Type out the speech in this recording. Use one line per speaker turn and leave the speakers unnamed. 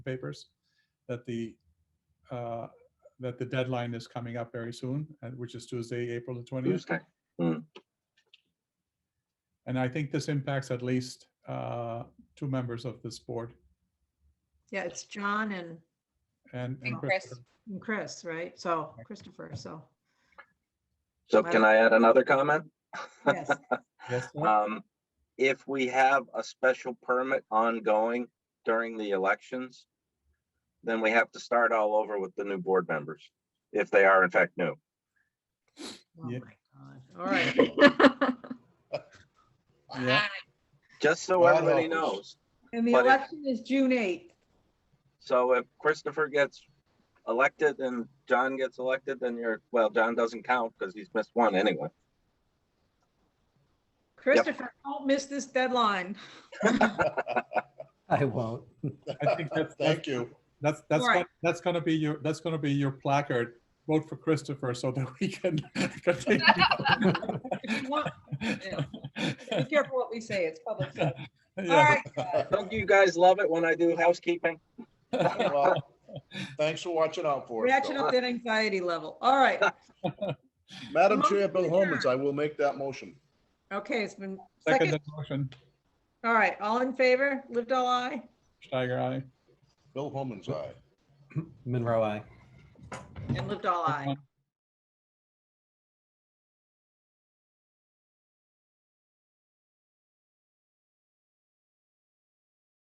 papers, that the, uh, that the deadline is coming up very soon, and- which is Tuesday, April the 20th.
Tuesday.
And I think this impacts at least uh, two members of this board
Yeah, it's John and
and.
And Chris.
Christopher.
and Chris, right? So Christopher, so,
So can I add another comment?
yes,
Yes, sir?
Um, if we have a special permit ongoing during the elections, then we have to start all over with the new board members, if they are in fact new.
oh my
Yeah.
God, all right.
Yeah.
Just so
God
everybody
help us.
knows.
And the
But it-
election is June 8th.
So if Christopher gets elected and John gets elected, then you're, well, John doesn't count because he's missed one anyway.
Christopher, don't miss this deadline.
I won't.
I think that's-
Thank you.
That's, that's,
Right.
gon- that's gonna be your, that's gonna be your placard. Vote for Christopher so that we can.
If you want,
continue.
be careful what we say, it's public. All
Yeah.
right, guys.
Don't you guys love it when I do housekeeping?
Well, uh, Thanks for watching out for us.
reaction
Bill.
up that anxiety level. All right,
Madam Chair,
Motion
Bill
to
Holman's, I will make that motion.
okay, it's been
Second
second.
motion,
All right, all in favor? Lived all eye?
Steiger, aye.
Bill Holman's, aye.
Monroe, I.
And lived all eye.